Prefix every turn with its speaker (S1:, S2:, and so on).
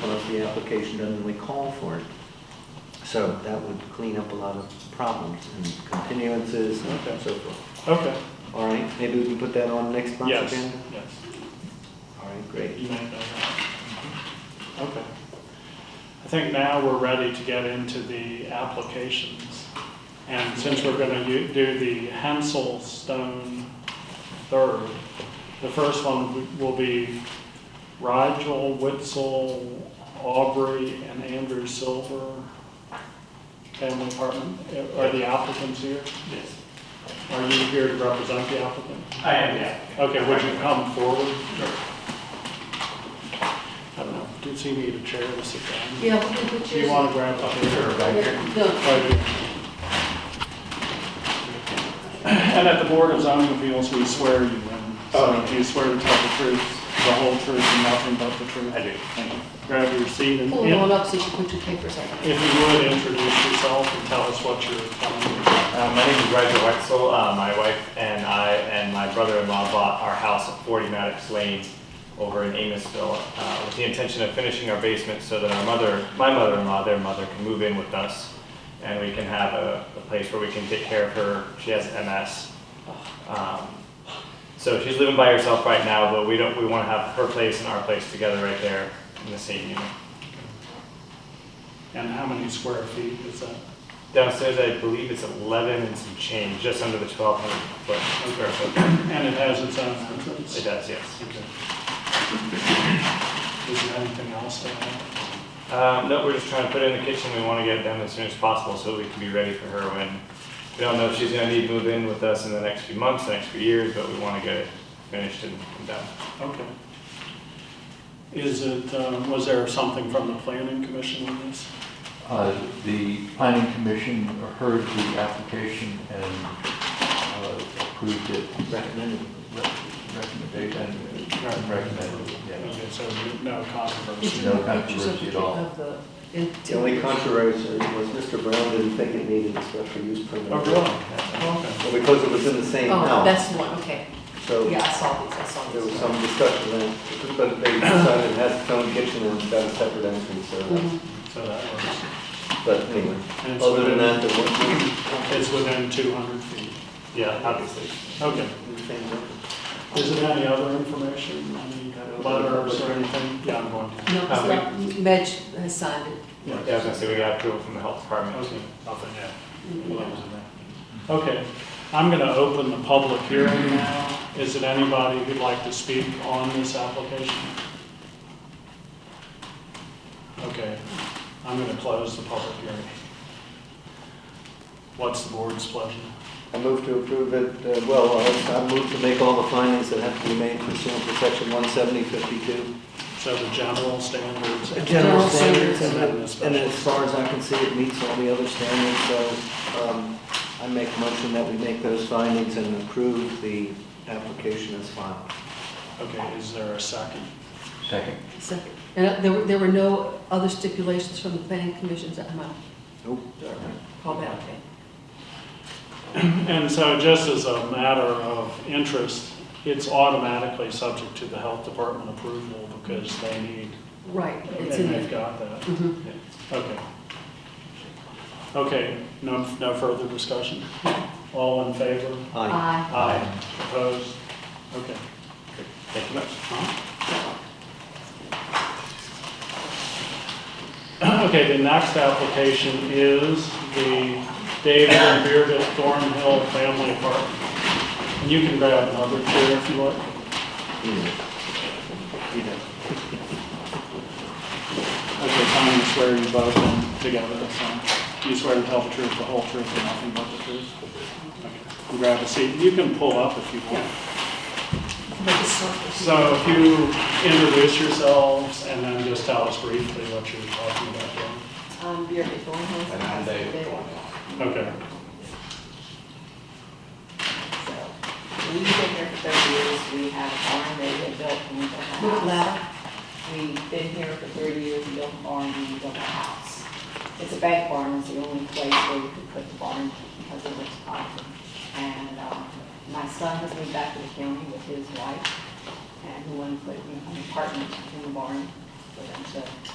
S1: the application doesn't really call for it. So that would clean up a lot of problems and continuances and so forth.
S2: Okay,
S1: All right, maybe we can put that on next month's
S2: yes,
S1: agenda?
S2: yes.
S1: All right, great.
S2: You may know that. Mm-hmm. Okay. I think now we're ready to get into the applications. And since we're going to do the Hansel Stone third, the first one will be Rigel, Witzel, Aubrey, and Andrew Silver, family apartment. uh, Are the applicants here?
S3: Yes,
S2: Are you here to represent the applicant?
S3: I am, yeah.
S2: Okay, would you come forward? I don't know, does he need a chair to sit down?
S4: Yeah, we can put
S2: Do you
S4: yours-
S2: want to grab a chair?
S4: No,
S2: Right here. And at the Board of Zoning Appeals, we swear you in. So
S3: Oh.
S2: do you swear to tell the truth, the whole truth, and nothing but the truth?
S3: I do.
S2: Thank you. Grab your seat and
S4: pull it all up so you can put your papers on.
S2: if you would, introduce yourself and tell us what you're telling
S3: Uh, my name is Roger Wexel. Uh, my wife and I and my brother-in-law bought our house at 40 Maddox Lane over in Amosville uh, with the intention of finishing our basement so that our mother, my mother-in-law, their mother, can move in with us and we can have a, a place where we can take care of her. She has MS. Um, so she's living by herself right now, but we don't. We want to have her place and our place together right there in the same unit.
S2: And how many square feet is that?
S3: Downstairs, I believe it's 11 and some change, just under the 1,200 foot square foot.
S2: And it has its own entrance?
S3: It does, yes.
S2: Okay. Is there anything else to add?
S3: Um, no, we're just trying to put it in the kitchen. We want to get it done as soon as possible so we can be ready for her when, we don't know if she's gonna need to move in with us in the next few months, the next few years, but we want to get it finished and and done.
S2: Okay. Is it, um, was there something from the planning commission on this?
S5: Uh, The planning commission heard the application and uh, approved it,
S1: Recommended.
S5: recommended, and recommended, yeah.
S2: Okay, So no controversy?
S5: No controversy at all.
S4: Of the- in-
S1: The only controversy was Mr. Brown didn't think it needed a special use permit.
S2: Oh, really? Okay.
S1: Well, Because it was in the same
S4: Oh,
S1: house,
S4: that's the one, okay.
S1: so
S4: Yeah, I saw these, I saw
S1: there was
S4: these.
S1: some discussion then, but they decided it has its own kitchen and it's got a separate entrance, so that's,
S4: Mhm.
S2: So that works.
S1: but anyway.
S2: And it's
S1: Other than
S2: within-
S1: that, there wasn't
S2: It's within 200 feet.
S3: Yeah, obviously.
S2: Okay.
S1: anything.
S2: Is there any other information, any letters or anything? Yeah, I'm going to.
S4: No, it's not, Medj has signed it.
S3: Yeah, I was gonna say, we got approval from the health department.
S2: Okay, nothing yet. Well, that was in there. Okay, I'm going to open the public hearing now. Is it anybody who'd like to speak on this application? Okay, I'm going to close the public hearing. What's the board's pleasure?
S1: I move to approve it, uh, well, I I move to make all the findings that have to be made pursuant to section 17052.
S2: So the general standards.
S4: General standards
S1: And
S2: then the
S1: then- and then as
S2: special-
S1: far as I can see, it meets all the other standards, so um, I make a motion that we make those findings and approve the application as filed.
S2: Okay, is there a second?
S5: Second.
S4: So- And there were, there were no other stipulations from the planning commissions that might
S1: Nope.
S4: call back, okay?
S2: And so just as a matter of interest, it's automatically subject to the health department approval because they need,
S4: Right,
S2: and
S4: it's in
S2: they've
S4: there.
S2: got that.
S4: Mhm.
S2: Okay. Okay, no, no further discussion? All in favor?
S1: Aye.
S4: Aye.
S2: Aye. Opposed? Okay.
S3: Thank you much.
S2: Uh-huh. Okay, the next application is the David and Bearded Thornhill Family Apartment. And you can grab another chair if you like.
S1: You know.
S2: Okay, Tom, you swear you both in together, so you swear to tell the truth, the whole truth, and nothing but the truth? Okay. Grab a seat. You can pull up if you want.
S4: Make it soft.
S2: So if you introduce yourselves and then just tell us briefly what you're talking about. yeah.
S6: Um, Beer before.
S3: And I'm David
S2: Okay,
S6: We've been here for thirty years, we have a barn that we built and we built a
S4: Move
S6: house.
S4: louder.
S6: We've been here for thirty years, we built a barn and we built a house. It's a bank barn, it's the only place where you could put the barn because it was private. And, um, my son has moved back to the county with his wife and who wanted to put an apartment in the barn for them to